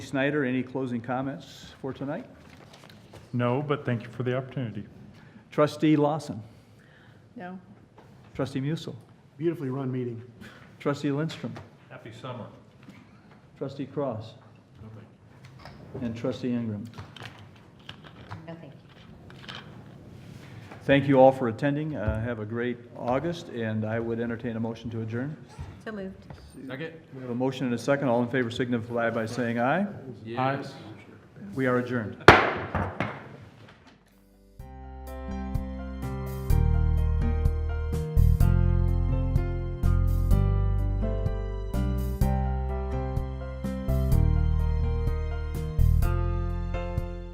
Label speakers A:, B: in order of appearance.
A: Snyder, any closing comments for tonight?
B: No, but thank you for the opportunity.
A: Trustee Lawson,
C: No.
A: trustee Musil,
D: Beautifully run meeting.
A: trustee Lindstrom,
B: Happy summer.
A: trustee Cross, and trustee Ingram.
C: No, thank you.
A: Thank you all for attending. Uh, Have a great August, and I would entertain a motion to adjourn.
C: So moved.
E: Second?
A: We have a motion and a second. All in favor signify by saying aye.
E: Yes.
A: We are adjourned.